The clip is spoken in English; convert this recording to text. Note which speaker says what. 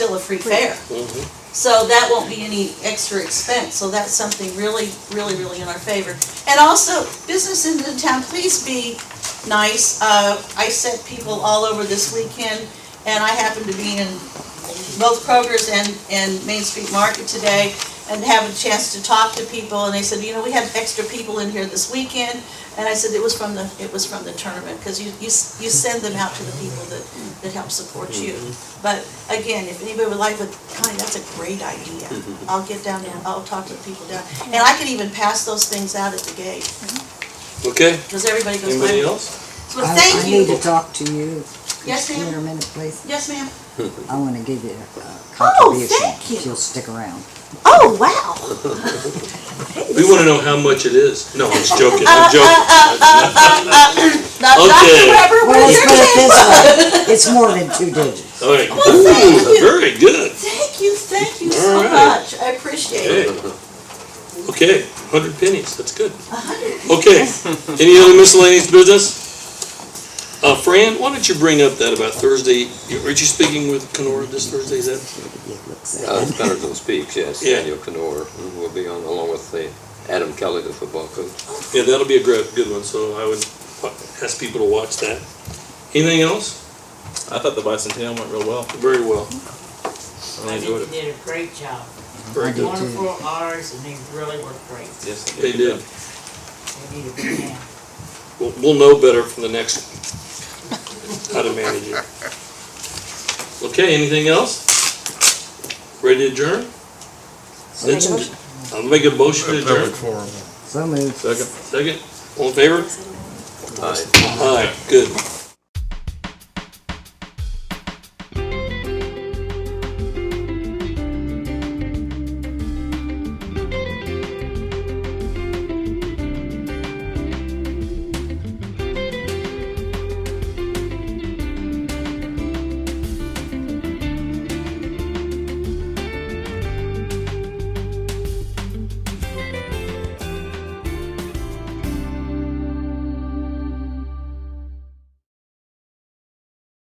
Speaker 1: still a free fare. So that won't be any extra expense, so that's something really, really, really in our favor. And also, businesses in the town, please be nice. Uh, I sent people all over this weekend, and I happened to be in both Kroger's and, and Main Street Market today and have a chance to talk to people, and they said, you know, we had extra people in here this weekend. And I said, it was from the, it was from the tournament, because you, you, s- you send them out to the people that, that help support you. But again, if anybody would like, but Connie, that's a great idea.
Speaker 2: Mm-hmm.
Speaker 1: I'll get down and I'll talk to the people down, and I can even pass those things out at the gate,
Speaker 2: Okay,
Speaker 1: because everybody goes. by.
Speaker 2: anybody else?
Speaker 1: So
Speaker 3: I-
Speaker 1: thank
Speaker 3: I need to
Speaker 1: you.
Speaker 3: talk to you.
Speaker 1: Yes, ma'am?
Speaker 3: Here a minute, please.
Speaker 1: Yes, ma'am.
Speaker 3: I want to give you a
Speaker 1: Oh,
Speaker 3: contribution.
Speaker 1: thank you.
Speaker 3: If you'll stick around.
Speaker 1: Oh, wow.
Speaker 2: We wanna know how much it is. No, I'm just joking, I'm joking.
Speaker 1: Now, Dr.
Speaker 2: Okay.
Speaker 1: Pepper,
Speaker 3: Well,
Speaker 1: where's
Speaker 3: let's
Speaker 1: your
Speaker 3: put it
Speaker 1: cake?
Speaker 3: this way. It's more than two digits.
Speaker 2: All right,
Speaker 1: Well, thank
Speaker 2: Ooh,
Speaker 1: you.
Speaker 2: very good.
Speaker 1: Thank you, thank you so
Speaker 2: All right.
Speaker 1: much. I appreciate
Speaker 2: Hey.
Speaker 1: it.
Speaker 2: Okay, hundred pennies, that's good. Okay, any other miscellaneous business? Uh, Fran, why don't you bring up that about Thursday, aren't you speaking with Kenora this Thursday, is that?
Speaker 3: It looks
Speaker 4: Uh,
Speaker 3: like.
Speaker 4: Patterson speaks, yes,
Speaker 2: Yeah.
Speaker 4: Daniel Kenora mm, will be on along with the Adam Kelly, the football coach.
Speaker 2: Yeah, that'll be a great, good one, so I would wa- ask people to watch that. Anything else?
Speaker 5: I thought the bicentennial went real well.
Speaker 2: Very well,
Speaker 5: I
Speaker 6: I
Speaker 5: really
Speaker 6: think
Speaker 5: enjoyed
Speaker 6: they did a great job.
Speaker 2: very good.
Speaker 6: Wonderful hours, and they really were great.
Speaker 5: it. Yes,
Speaker 2: They did.
Speaker 6: They need a big hand.
Speaker 2: We'll, we'll know better from the next, how to manage it. Okay, anything else? Ready to adjourn? That's it. I'll make a motion to adjourn.
Speaker 3: So moved.
Speaker 5: Second.
Speaker 2: Second, all in favor?
Speaker 4: Aye.
Speaker 2: Aye, good.